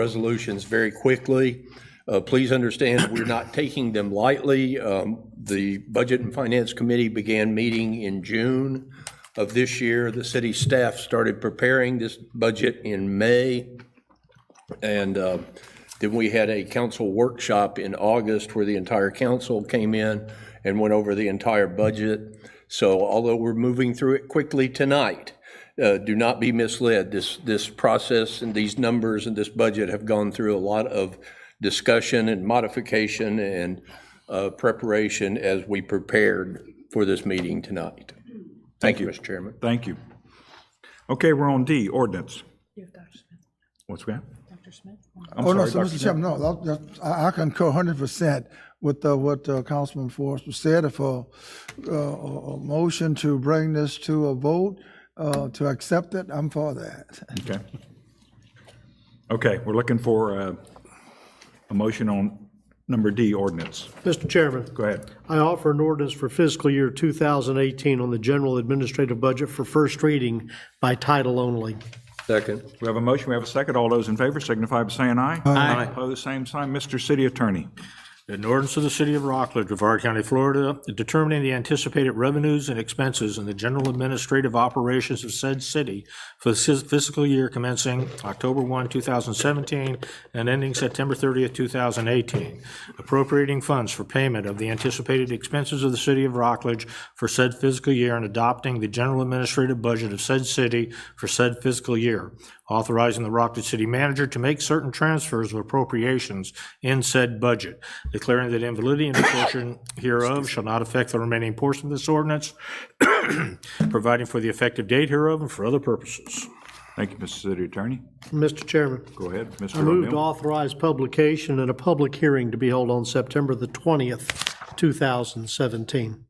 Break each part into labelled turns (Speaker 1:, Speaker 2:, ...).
Speaker 1: resolutions very quickly. Uh, Please understand, we're not taking them lightly. Um, The Budget and Finance Committee began meeting in June of this year. The city staff started preparing this budget in May. And uh, then we had a council workshop in August where the entire council came in and went over the entire budget. So although we're moving through it quickly tonight, uh, do not be misled. This, this process and these numbers and this budget have gone through a lot of discussion and modification and uh, preparation as we prepared for this meeting tonight. Thank you, Mr. Chairman.
Speaker 2: Thank you. Okay, we're on D, ordinance. What's that?
Speaker 3: Oh, no, so, Mr. Chairman, no, that- that- I, I concur hundred percent with, uh, what, uh, Councilman Forrest said, if, uh, uh, a motion to bring this to a vote, uh, to accept it, I'm for that.
Speaker 2: Okay. Okay, we're looking for uh, a motion on number D, ordinance.
Speaker 4: Mr. Chairman,
Speaker 2: Go ahead.
Speaker 4: I offer an ordinance for fiscal year 2018 on the general administrative budget for first reading by title only.
Speaker 1: Second.
Speaker 2: We have a motion, we have a second. All those in favor signify by saying aye. Aye. Opposed, same sign. Mr. City Attorney.
Speaker 5: An ordinance of the City of Rockledge, Brevard County, Florida, determining the anticipated revenues and expenses in the general administrative operations of said city for the fis- fiscal year commencing October 1, 2017, and ending September 30, 2018, appropriating funds for payment of the anticipated expenses of the City of Rockledge for said fiscal year and adopting the general administrative budget of said city for said fiscal year, authorizing the Rockledge City Manager to make certain transfers of appropriations in said budget, declaring that invalidity and portion hereof shall not affect the remaining portion of this ordinance, providing for the effective date hereof and for other purposes.
Speaker 2: Thank you, Mr. City Attorney.
Speaker 4: Mr. Chairman,
Speaker 2: Go ahead, Mr.
Speaker 4: I move to
Speaker 2: O'Neill.
Speaker 4: authorize publication and a public hearing to be held on September the 20th, 2017.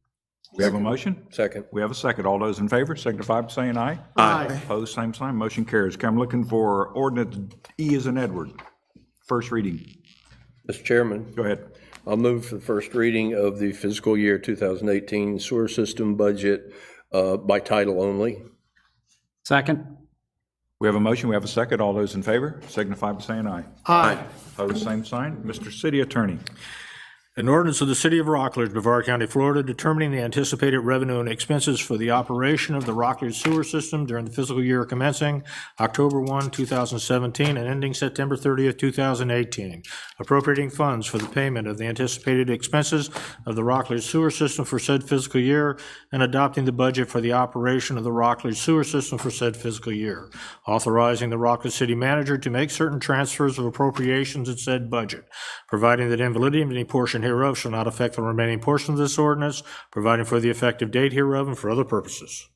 Speaker 2: We have a motion?
Speaker 1: Second.
Speaker 2: We have a second. All those in favor signify by saying aye.
Speaker 4: Aye.
Speaker 2: Opposed, same sign. Motion carries. Okay, I'm looking for ordinance E as in Edward. First reading.
Speaker 1: Mr. Chairman.
Speaker 2: Go ahead.
Speaker 1: I'll move for the first reading of the fiscal year 2018 sewer system budget uh, by title only.
Speaker 6: Second.
Speaker 2: We have a motion, we have a second. All those in favor signify by saying aye.
Speaker 4: Aye.
Speaker 2: Opposed, same sign. Mr. City Attorney.
Speaker 5: An ordinance of the City of Rockledge, Brevard County, Florida, determining the anticipated revenue and expenses for the operation of the Rockledge Sewer System during the fiscal year commencing October 1, 2017, and ending September 30, 2018, appropriating funds for the payment of the anticipated expenses of the Rockledge Sewer System for said fiscal year, and adopting the budget for the operation of the Rockledge Sewer System for said fiscal year, authorizing the Rockledge City Manager to make certain transfers of appropriations in said budget, providing that invalidity of any portion hereof shall not affect the remaining portion of this ordinance, providing for the effective date hereof and for other purposes.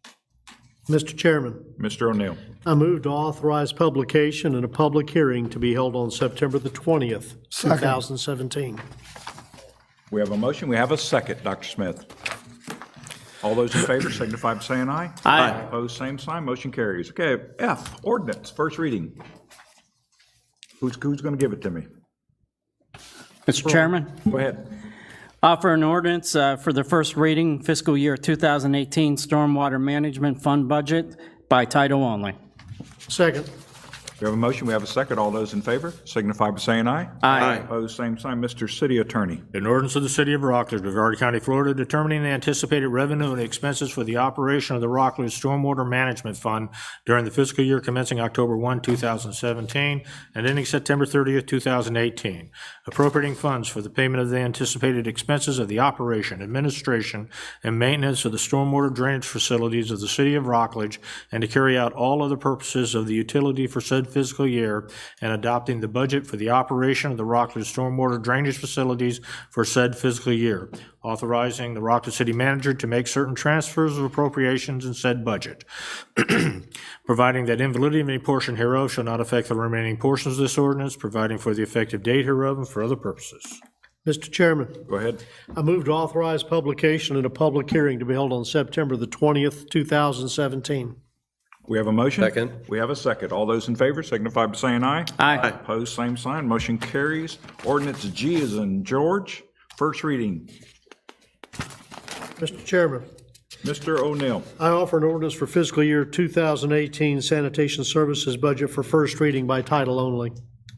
Speaker 4: Mr. Chairman,
Speaker 2: Mr. O'Neill.
Speaker 4: I move to authorize publication and a public hearing to be held on September the 20th, 2017.
Speaker 2: We have a motion, we have a second. Dr. Smith. All those in favor signify by saying aye. Aye. Opposed, same sign. Motion carries. Okay, F, ordinance, first reading. Who's, who's going to give it to me?
Speaker 6: Mr. Chairman,
Speaker 2: Go ahead.
Speaker 6: offer an ordinance uh, for the first reading fiscal year 2018 Stormwater Management Fund Budget by title only.
Speaker 4: Second.
Speaker 2: We have a motion, we have a second. All those in favor signify by saying aye.
Speaker 6: Aye.
Speaker 2: Opposed, same sign. Mr. City Attorney.
Speaker 5: An ordinance of the City of Rockledge, Brevard County, Florida, determining the anticipated revenue and expenses for the operation of the Rockledge Stormwater Management Fund during the fiscal year commencing October 1, 2017, and ending September 30, 2018, appropriating funds for the payment of the anticipated expenses of the operation, administration, and maintenance of the stormwater drainage facilities of the City of Rockledge, and to carry out all other purposes of the utility for said fiscal year, and adopting the budget for the operation of the Rockledge Stormwater Drainage Facilities for said fiscal year, authorizing the Rockledge City Manager to make certain transfers of appropriations in said budget, providing that invalidity of any portion hereof shall not affect the remaining portions of this ordinance, providing for the effective date hereof and for other purposes.
Speaker 4: Mr. Chairman,
Speaker 2: Go ahead.
Speaker 4: I move to authorize publication and a public hearing to be held on September the 20th, 2017.
Speaker 2: We have a motion?
Speaker 1: Second.
Speaker 2: We have a second. All those in favor signify by saying aye.
Speaker 6: Aye.
Speaker 2: Opposed, same sign. Motion carries. Ordinance G is in George. First reading.
Speaker 4: Mr. Chairman,
Speaker 2: Mr. O'Neill.
Speaker 4: I offer an ordinance for fiscal year 2018 sanitation services budget for first reading by title only.